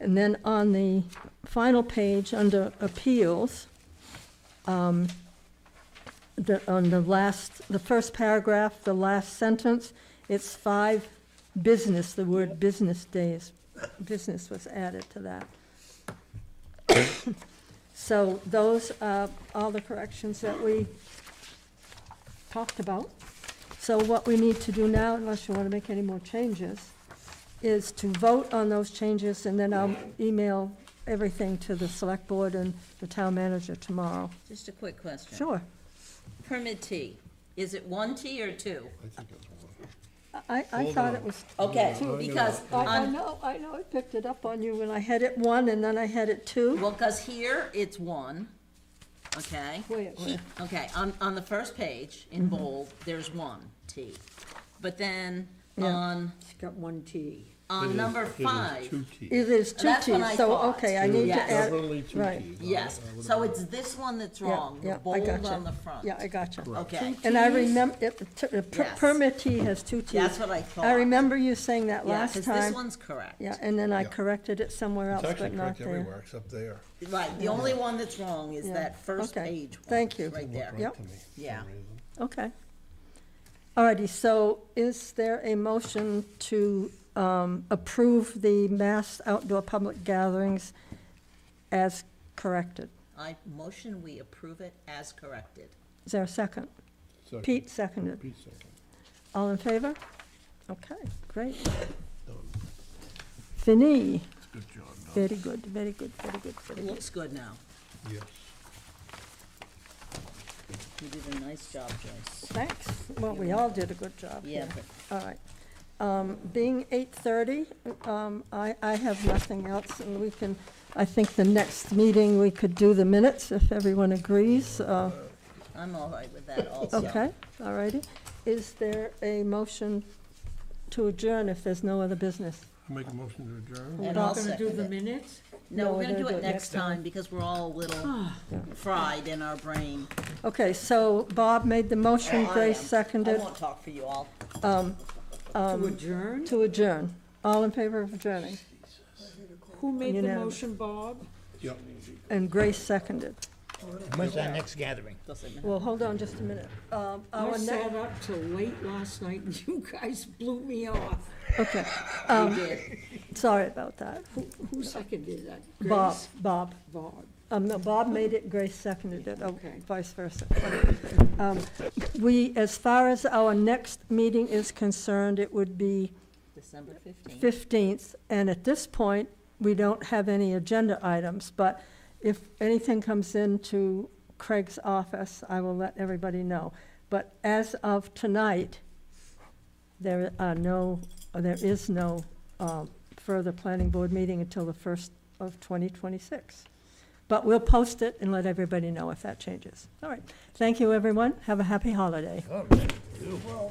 And then on the final page, under appeals, um, the, on the last, the first paragraph, the last sentence, it's five business, the word business days, business was added to that. So those are all the corrections that we talked about. So what we need to do now, unless you want to make any more changes, is to vote on those changes, and then I'll email everything to the select board and the town manager tomorrow. Just a quick question. Sure. Permittee, is it one T or two? I think it's one. I, I Hold thought on. it was, oh, Okay, no, because I, I on, know, I know, I picked it up on you when I had it one, and then I had it two. well, because here it's one, okay? Wait, He- wait. Okay, on, on the first page Mm-hmm. in bold, there's one T. But then Yeah. on, It's got one T. It on is- number it is Two five, T. It is two That's what I Ts, so, thought. okay, I need to Yes. add. Definitely two right. Ts. I- yes, I would so agree. it's this one that's Yeah, wrong, yeah, the I bold gotcha. on the front. Yeah, I got you. Okay, And I Ts? remember, it, t- uh, per- Yes. permittee has two Ts. That's what I thought. I remember you saying that yeah, last because this time. one's correct. Yeah, and then I Yeah. corrected it somewhere It's else, actually but not correct there. everywhere except there. Right, the only one that's wrong is Yeah, that first okay, page one. thank you. Right Looked there. Yep. right to me for some Yeah. reason. Okay. Alrighty, so is there a motion to um, approve the mass outdoor public gatherings as corrected? I motion we approve it as corrected. Is there a second? Second. Pete seconded. Pete second. All in favor? Okay, great. Done. Fini, Good job, done. very good, very good, very good, very It good. looks good now. Yes. You did a nice job, Joyce. Thanks. Well, we all did a good job Yeah, here. but All right. Um, Being 8:30, um, I I have nothing else, and we can, I think the next meeting, we could do the minutes if everyone agrees. Uh, I'm all right with that also. Okay, all righty. Is there a motion to adjourn if there's no other business? Make a motion to adjourn? And I'll Not gonna do second the it. minutes? No, No, we're gonna they'll do it next time because we're all a little fried in our brain. Okay, so Bob made the motion, I Grace am. I seconded won't talk for you all. To adjourn? Um, to adjourn. All in favor of adjourning? Who made the Unanimous. motion, Bob? Yep. And Grace seconded. When's our next gathering? Well, hold on just a minute. Um, I Our next, sat up till late last night and you guys blew me off. okay, We did. sorry about that. Who, who seconded that? Bob, Grace? Bob. Bob. Um, no, Bob made it, Grace seconded it, oh, Okay. vice versa. Um, We, as far as our next meeting is concerned, it would be December fifteenth. 15th, and at this point, we don't have any agenda items, but if anything comes into Craig's office, I will let everybody know. But as of tonight, there are no, there is no um, further planning board meeting until the first of 2026. But we'll post it and let everybody know if that changes. All right. Thank you, everyone. Have a happy holiday. Oh, man.